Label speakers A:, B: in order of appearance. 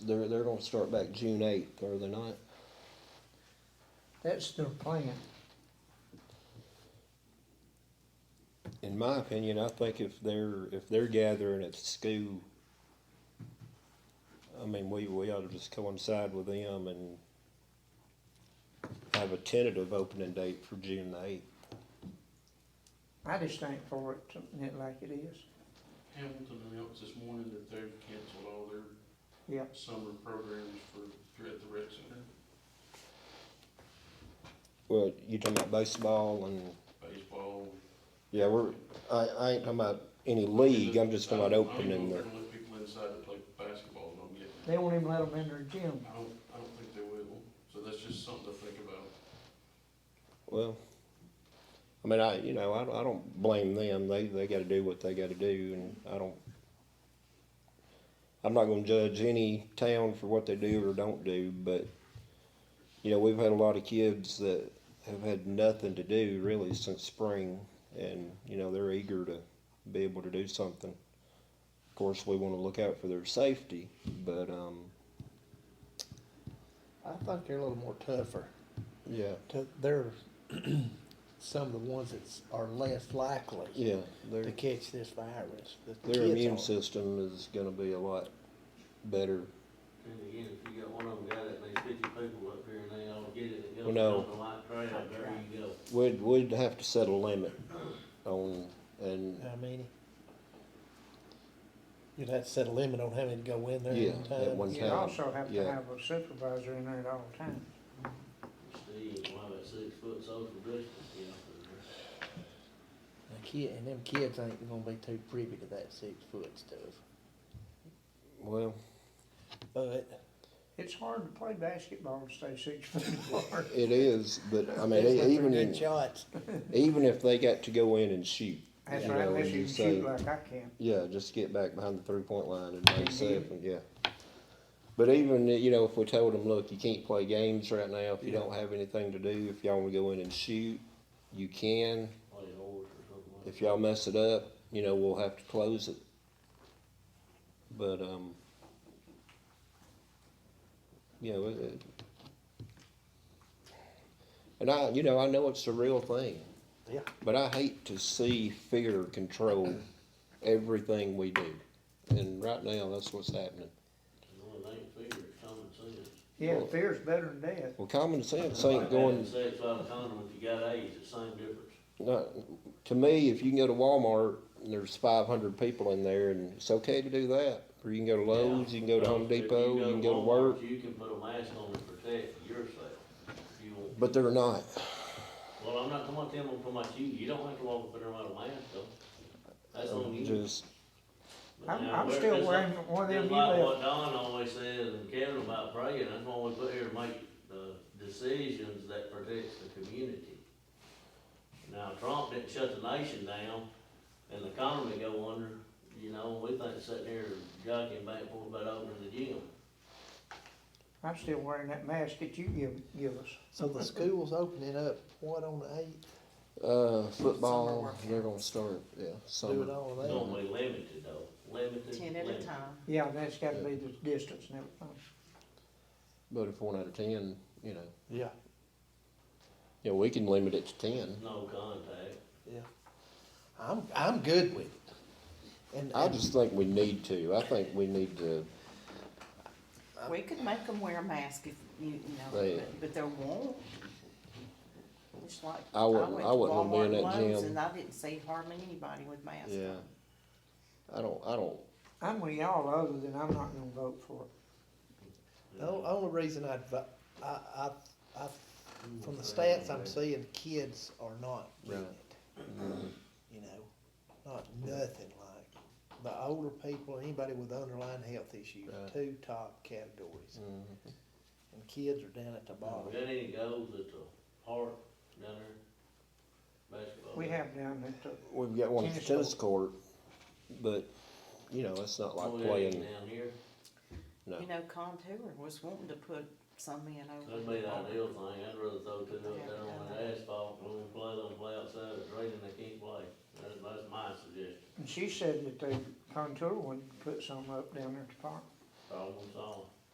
A: They're, they're gonna start back June eighth, are they not?
B: That's their plan.
A: In my opinion, I think if they're, if they're gathering at school, I mean, we, we ought to just coincide with them and have a tentative opening date for June the eighth.
B: I just think for it, something it like it is.
C: Hamilton announced this morning that they've canceled all their
B: Yeah.
C: summer programs for, throughout the rec center,
A: Well, you talking about baseball and,
C: baseball.
A: yeah, we're, I, I ain't talking about any league, I'm just talking about
C: I don't-
A: opening the,
C: I don't even know if they're gonna let people inside to play basketball, don't get,
B: They won't even let them in their gym.
C: I don't, I don't think they will, so that's just something to think about.
A: well, I mean, I, you know, I, don't- I don't blame them, they, they gotta do what they gotta do, and I don't, I'm not gonna judge any town for what they do or don't do, but, you know, we've had a lot of kids that have had nothing to do really since spring, and, you know, they're eager to be able to do something. Of course, we wanna look out for their safety, but, um,
D: I think they're a little more tougher.
A: yeah,
D: To- They're some of the ones that are less likely
A: yeah, they're.
D: to catch this virus. that the
A: Their
D: kids
A: immune
D: are.
A: system is gonna be a lot better.
E: And again, if you got one of them got it, and there's fifty people up here and they all get it, it
A: Well,
E: goes
A: no.
E: down the white trail, there you go.
A: We'd, we'd have to set a limit on, and,
D: How many? You'd have to set a limit on how many go in there
A: Yeah,
D: at one
A: at
D: time.
A: one
B: You'd
A: time.
B: also have to
A: yeah.
B: have a supervisor in there at all times.
E: Steve, why that six foot social distance, you know?
D: A kid, and them kids ain't gonna be too privy to that six foot stuff.
A: well,
D: But
B: It's hard to play basketball and stay six feet apart.
A: it is, but I mean,
D: they're
A: e- even,
D: good
A: in-
D: shots.
A: even if they got to go in and shoot,
B: That's
A: You
B: right,
A: know,
B: unless
A: you
B: you can
A: say-
B: shoot like I can.
A: yeah, just get back behind the three point line and make
B: Mhm.
A: seven, yeah. But even, you know, if we told them, look, you can't play games right now, if you
D: Yeah.
A: don't have anything to do, if y'all wanna go in and shoot, you can.
E: Play horse or something like that.
A: If y'all mess it up, you know, we'll have to close it. But, um, you know, it, it- and I, you know, I know it's a real thing.
D: Yeah.
A: But I hate to see fear control everything we do. And right now, that's what's happening.
E: And the only thing that figures common sense.
B: Yeah,
A: Well-
B: fear's better than death.
A: Well, common sense
E: Like
A: ain't
E: having
A: going,
E: Sex without a condom, if you got AIDS, it's same difference.
A: not, to me, if you can go to Walmart and there's five hundred people in there and it's okay to do that. Or you can go to Lowe's, you can go to
E: Yeah.
A: Home
E: If you
A: Depot, you can go to
E: Walmart,
A: work.
E: You can put a mask on to protect yourself. If you want,
A: But they're not.
E: well, I'm not talking about them, I'm talking about you, you don't have to walk up there without a mask though. That's on you.
A: Just,
B: I'm-
E: Now,
B: I'm
E: where-
B: still
E: it's
B: wearing
E: like-
B: one of them
E: it's
B: you
E: like
B: left.
E: What Don always says, and Kevin about praying, that's why we put here to make the decisions that protects the community. Now, Trump didn't shut the nation down, and the economy go under, you know, we think sitting here jockeying back and forth about opening the gym.
B: I'm still wearing that mask that you give, give us.
D: So the school's opening up, what, on the eighth?
A: uh, football,
F: workout.
A: they're gonna start, yeah,
D: Do it
A: summer.
D: all
E: It's
D: that.
E: gonna be limited though, limited.
F: Ten at a
E: limited.
F: time.
B: Yeah, that's gotta be the distance and everything.
A: But if one out of ten, you know,
D: Yeah,
A: you know, we can limit it to ten.
E: No contact.
D: yeah. I'm, I'm good with it. And,
A: I
D: and
A: just think we need to. I think we need to,
F: We could make them wear a mask if, you, you know,
A: Right.
F: but, but they won't. It's like.
A: I wouldn't-
F: went
A: I
F: to
A: wouldn't wanna be
F: Walmart
A: in
F: and
A: that
F: Lowe's
A: gym.
F: And I didn't see hardly anybody with masks
A: yeah.
F: on.
A: I don't, I don't,
B: I'm with y'all other than I'm not gonna vote for it.
D: The o- only reason I'd, vo- I, I, I, from the stats I'm seeing, kids are not getting
A: Right.
D: it, you know? Not nothing like, the older people, anybody with underlying health issues,
A: Right.
D: two top categories,
A: mm,
D: and kids are down at the
E: We
D: bottom.
E: got any goals at the park down there? Basketball.
B: We have down at the,
A: we've got one at the
B: Tennis
A: tennis court, but, you know, it's not
E: Oh,
A: like
E: yeah,
A: playing,
E: Down here.
A: no.
F: You know, Contour was wanting to put some in
E: That'd
F: over.
E: be
F: the
E: the
F: wall.
E: ideal thing, I'd rather throw two up there on the asphalt, when we play, let them play outside, it's raining, they can't play. That's, that's my suggestion,
B: and she said that the contour would put some up down there at the park.
E: problem solved.